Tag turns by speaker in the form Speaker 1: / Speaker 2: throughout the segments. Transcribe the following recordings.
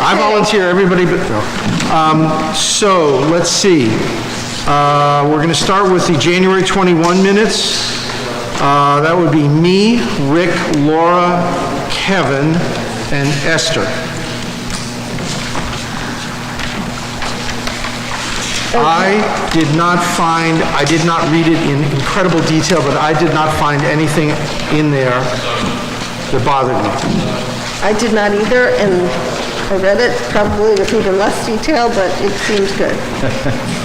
Speaker 1: I volunteer, everybody but Phil. Um, So, let's see. Uh, We're going to start with the January 21 minutes. Uh, That would be me, Rick, Laura, Kevin, and Esther. I did not find, I did not read it in incredible detail, but I did not find anything in there that bothered me.
Speaker 2: I did not either, and I read it probably with even less detail, but it seems good.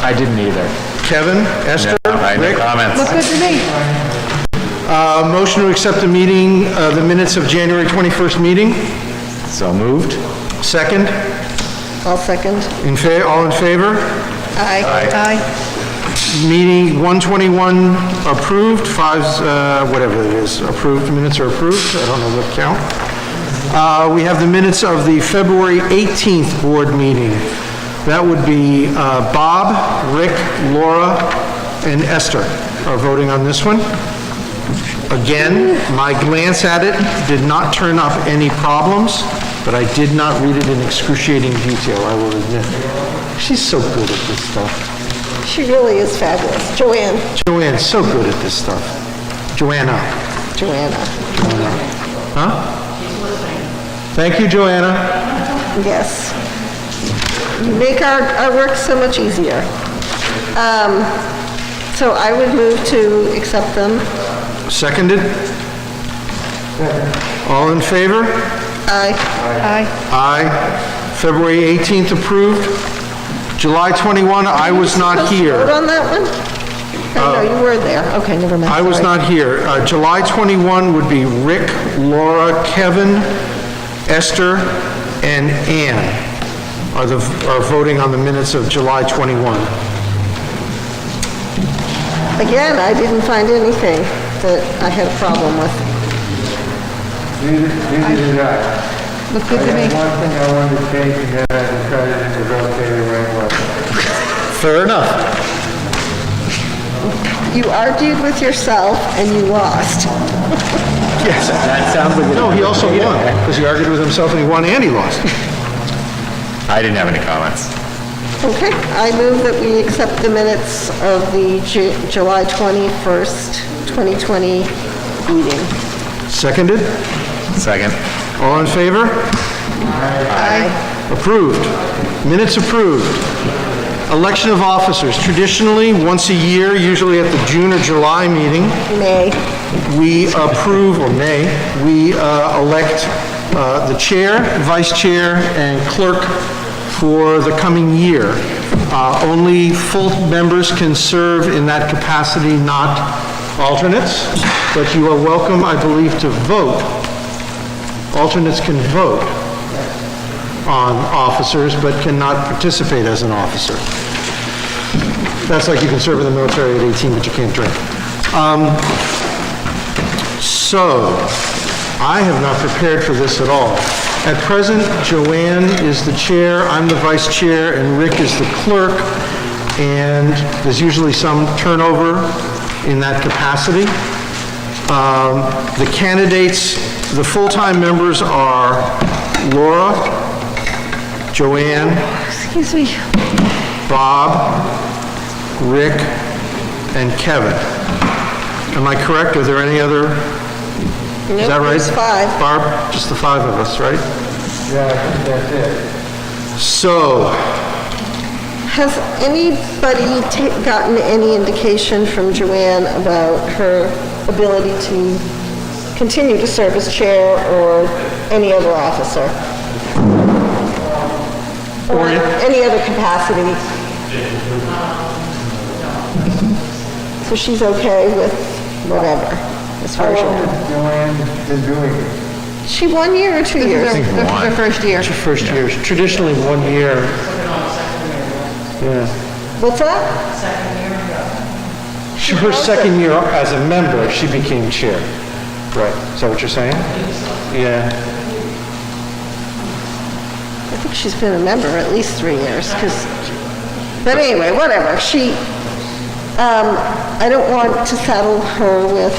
Speaker 3: I didn't either.
Speaker 1: Kevin, Esther,
Speaker 3: I no
Speaker 1: Rick?
Speaker 3: comments.
Speaker 2: Look good to me.
Speaker 1: Uh, Motion to accept the meeting, uh, the minutes of January 21st meeting.
Speaker 3: So moved?
Speaker 1: Second,
Speaker 2: I'll second.
Speaker 1: in fa, all in favor?
Speaker 2: Aye. Aye.
Speaker 1: Meeting 121 approved, five, uh, whatever it is, approved, minutes are approved, I don't know what count. Uh, We have the minutes of the February 18th board meeting. That would be uh, Bob, Rick, Laura, and Esther are voting on this one. Again, my glance at it did not turn up any problems, but I did not read it in excruciating detail, I will admit. She's so good at this stuff.
Speaker 2: She really is fabulous. Joanne,
Speaker 1: Joanne's so good at this stuff. Joanna,
Speaker 2: Joanna,
Speaker 1: huh? Thank you, Joanna.
Speaker 2: yes. You make our, our work so much easier. Um, So I would move to accept them.
Speaker 1: Seconded? All in favor?
Speaker 2: Aye. Aye.
Speaker 1: Aye. February 18th approved. July 21, I was not
Speaker 2: Vote
Speaker 1: here. Uh,
Speaker 2: on that one? Oh, no, you were there. Okay, never mind.
Speaker 1: I was
Speaker 2: sorry.
Speaker 1: not here. Uh, July 21 would be Rick, Laura, Kevin, Esther, and Ann are the, are voting on the minutes of July 21.
Speaker 2: Again, I didn't find anything that I had a problem with.
Speaker 4: Neither neither did I.
Speaker 2: Look good
Speaker 4: I
Speaker 2: to me.
Speaker 4: had one thing I wanted to change, and then I decided to rotate it right away.
Speaker 1: Fair enough.
Speaker 2: You argued with yourself and you lost.
Speaker 1: Yes.
Speaker 3: That sounds like...
Speaker 1: No, he also won, because he argued with himself and he won and he lost.
Speaker 3: I didn't have any comments.
Speaker 2: Okay, I move that we accept the minutes of the Ju- July 21st, 2020 meeting.
Speaker 1: Seconded?
Speaker 3: Second?
Speaker 1: All in favor?
Speaker 2: Aye.
Speaker 1: Approved. Minutes approved. Election of officers. Traditionally, once a year, usually at the June or July meeting,
Speaker 2: Nay.
Speaker 1: we approve, or may, we uh, elect uh, the chair, vice chair, and clerk for the coming year. Uh, Only full members can serve in that capacity, not alternates, but you are welcome, I believe, to vote. Alternates can vote on officers, but cannot participate as an officer. That's like you can serve in the military at 18, but you can't drink. So, I have not prepared for this at all. At present, Joanne is the chair, I'm the vice chair, and Rick is the clerk, and there's usually some turnover in that capacity. Um, The candidates, the full-time members are Laura, Joanne,
Speaker 2: Excuse me.
Speaker 1: Bob, Rick, and Kevin. Am I correct? Are there any other? Is that
Speaker 2: Nope,
Speaker 1: right?
Speaker 2: there's five.
Speaker 1: Barb, just the five of us, right?
Speaker 4: Yeah, I think that's it.
Speaker 1: So,
Speaker 2: Has anybody ta- gotten any indication from Joanne about her ability to continue to serve as chair or any other officer? Or any other capacity? So she's okay with whatever, as far as you're...
Speaker 4: Joanne's been doing it.
Speaker 2: She one year or two years?
Speaker 1: think
Speaker 2: This is her first year.
Speaker 1: it's your first year, traditionally one year. Yeah.
Speaker 2: What's that?
Speaker 1: She- Her second year as a member, she became chair. Right. Is that what you're saying? Yeah.
Speaker 2: I think she's been a member at least three years, because, but anyway, whatever, she, um, I don't want to saddle her with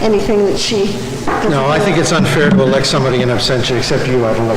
Speaker 2: anything that she doesn't
Speaker 1: No, I
Speaker 2: know.
Speaker 1: think it's unfair to elect somebody in absentia, except you, I'd elect